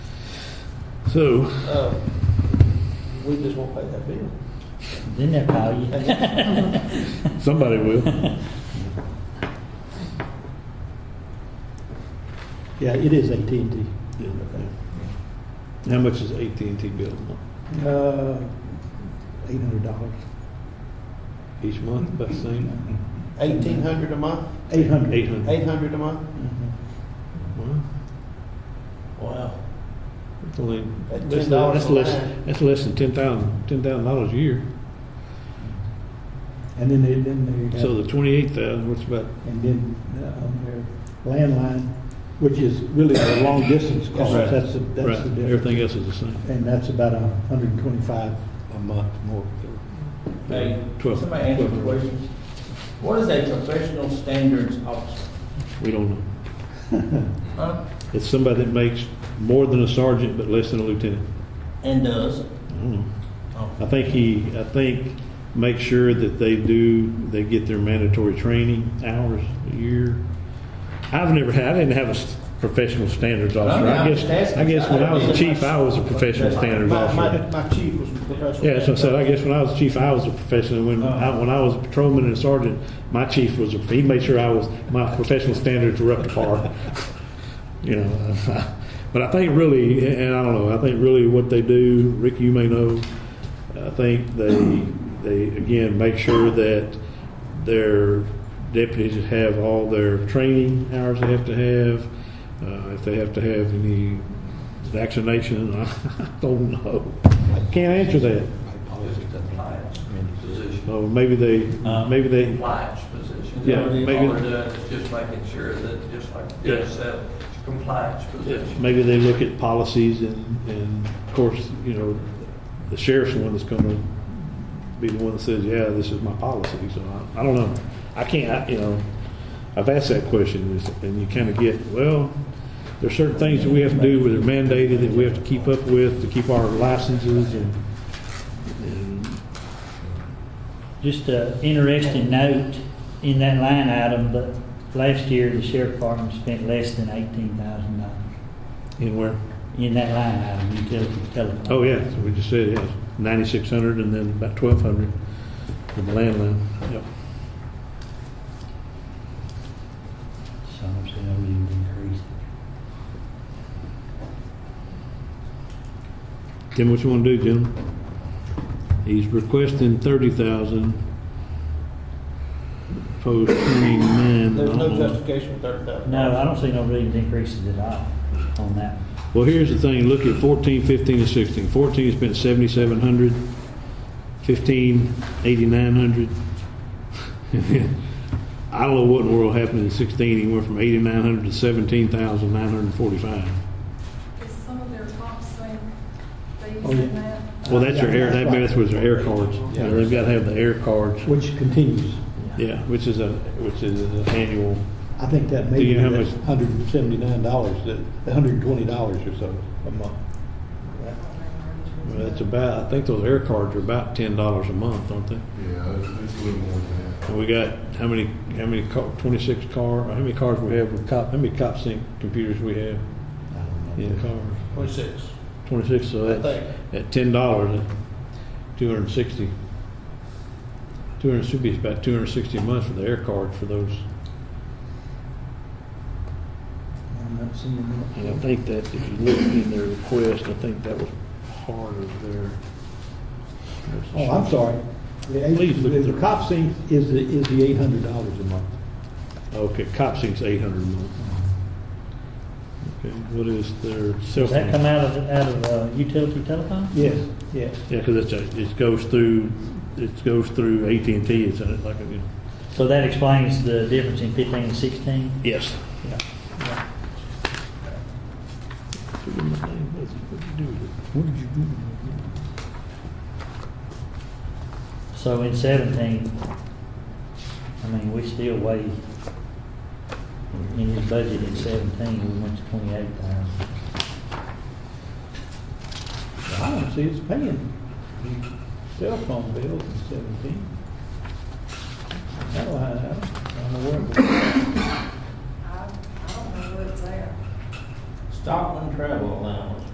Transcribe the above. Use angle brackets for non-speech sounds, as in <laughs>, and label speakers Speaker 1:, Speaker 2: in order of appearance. Speaker 1: So, <laughs>
Speaker 2: Uh, We just won't pay that bill.
Speaker 3: Then they'll call you.
Speaker 1: somebody will.
Speaker 4: Yeah, it is AT&T.
Speaker 1: Yeah, yeah. How much is AT&T bill a month?
Speaker 4: Uh, eight hundred dollars.
Speaker 1: each month, about the same?
Speaker 2: Eighteen hundred a month,
Speaker 4: Eight hundred. Mm-hmm.
Speaker 1: Eight hundred?
Speaker 2: eight hundred a month,
Speaker 1: Wow.
Speaker 3: Wow.
Speaker 1: That's only,
Speaker 2: At
Speaker 1: that's,
Speaker 2: $10
Speaker 1: that's
Speaker 2: a
Speaker 1: less,
Speaker 2: line.
Speaker 1: that's less than ten thousand, ten thousand dollars a year.
Speaker 4: And then they, then they.
Speaker 1: So the twenty-eight thousand, what's about,
Speaker 4: And then uh, on their landline, which is really the long distance calls,
Speaker 2: Right.
Speaker 4: that's the,
Speaker 1: right,
Speaker 4: that's the difference.
Speaker 1: everything else is the same.
Speaker 4: And that's about a hundred and twenty-five a month more.
Speaker 5: Hey,
Speaker 1: Twelve-
Speaker 5: somebody answer
Speaker 1: twelve.
Speaker 5: the question. What is a professional standards officer?
Speaker 1: We don't know.
Speaker 5: Huh?
Speaker 1: It's somebody that makes more than a sergeant but less than a lieutenant.
Speaker 5: And does?
Speaker 1: I don't know.
Speaker 5: Oh.
Speaker 1: I think he, I think, make sure that they do, they get their mandatory training hours a year. I've never had, I didn't have a s- professional standards officer. I guess, I guess when I was a chief, I was a professional standards
Speaker 2: Oh, My, my,
Speaker 1: officer.
Speaker 2: my chief was professional.
Speaker 1: Yeah, so I said, I guess when I was a chief, I was a professional. When I, when I was a patrolman and sergeant, my chief was, a he made sure I was, my professional standards were up to par. <laughs> You know, <laughs> but I think really, and I don't know, I think really what they do, Rick, you may know, I think they, they again, make sure that their deputies have all their training hours they have to have, uh, if they have to have any vaccination, <laughs> I don't know. I Can't answer that.
Speaker 6: Compliance position.
Speaker 1: So maybe they, maybe they,
Speaker 6: Compliance position.
Speaker 1: Yeah, maybe-
Speaker 6: All we're doing is uh, just making sure that, just like
Speaker 1: Yeah.
Speaker 6: Jeff said, it's a compliance position.
Speaker 1: maybe they look at policies and, and of course, you know, the sheriff's the one that's gonna be the one that says, yeah, this is my policy, so I, I don't know. I can't, I- you know, I've asked that question is- and you kinda get, well, there's certain things that we have to do that are mandated that we have to keep up with to keep our licenses and, and
Speaker 3: Just an interesting note in that line item, but last year the sheriff department spent less than eighteen thousand dollars
Speaker 1: anywhere.
Speaker 3: in that line item, utility telephone.
Speaker 1: Oh, yeah, so we just said, yeah, ninety-six hundred and then about twelve hundred for the landline. Yep.
Speaker 3: So I'm saying that we need to increase it.
Speaker 1: Tim, what you want to do, Jim? He's requesting thirty thousand. Proposed twenty-nine.
Speaker 2: There was no
Speaker 1: I don't know.
Speaker 2: justification for thirty thousand.
Speaker 3: No, I don't see no reason to increase it at all on that.
Speaker 1: Well, here's the thing, look at 14, 15, and 16. 14 spent 7,700, 15, 8,900. And then, <laughs> I don't know what in the world happened in 16, he went from 8,900 to 17,945.
Speaker 7: Is some of their top sync, they
Speaker 4: Oh,
Speaker 7: using
Speaker 4: yeah.
Speaker 7: that?
Speaker 1: Well, that's their air, that that's where their air cards, You know, they've got to have the air cards,
Speaker 4: Which continues.
Speaker 1: yeah, which is a, which is an annual.
Speaker 4: I think that may
Speaker 1: Do you
Speaker 4: be
Speaker 1: know how
Speaker 4: that
Speaker 1: much-
Speaker 4: hundred and seventy-nine dollars, that, hundred and twenty dollars or so a month.
Speaker 1: Well, That's about, I think those air cards are about ten dollars a month, aren't they?
Speaker 8: Yeah, it's, it's a little more than that.
Speaker 1: And we got, how many, how many, twenty-six car, how many cars we have with cop, how many cop sync computers we have
Speaker 4: I don't know.
Speaker 1: in cars?
Speaker 2: Twenty-six.
Speaker 1: Twenty-six, so
Speaker 2: I
Speaker 1: that's,
Speaker 2: think.
Speaker 1: at ten dollars, two hundred and sixty. Two hundred, should be about two hundred and sixty a month for the air card for those.
Speaker 4: I'm not seeing
Speaker 1: And I think that if you look in their request, I think that was part of their.
Speaker 4: Oh, I'm sorry. The eight-
Speaker 1: Please look at
Speaker 4: The
Speaker 1: the-
Speaker 4: cop sync is, the- is the eight hundred dollars a month.
Speaker 1: Okay, cop sync's eight hundred a month. Okay, what is their cell phone?
Speaker 3: Does that come out of, out of uh, utility telephone?
Speaker 4: Yes, yes.
Speaker 1: Yeah, because it's a, it goes through, it goes through AT&T, it's a- like a, you know,
Speaker 3: So that explains the difference in fifteen and sixteen?
Speaker 1: yes.
Speaker 4: Yeah.
Speaker 3: So in seventeen, I mean, we still weighed in his budget in seventeen, we went to twenty-eight thousand.
Speaker 4: I don't see it's paying the cell phone bills in seventeen. That line item, I don't know where it was.
Speaker 7: I, I don't know what it's there.
Speaker 2: Stockman travel allowance.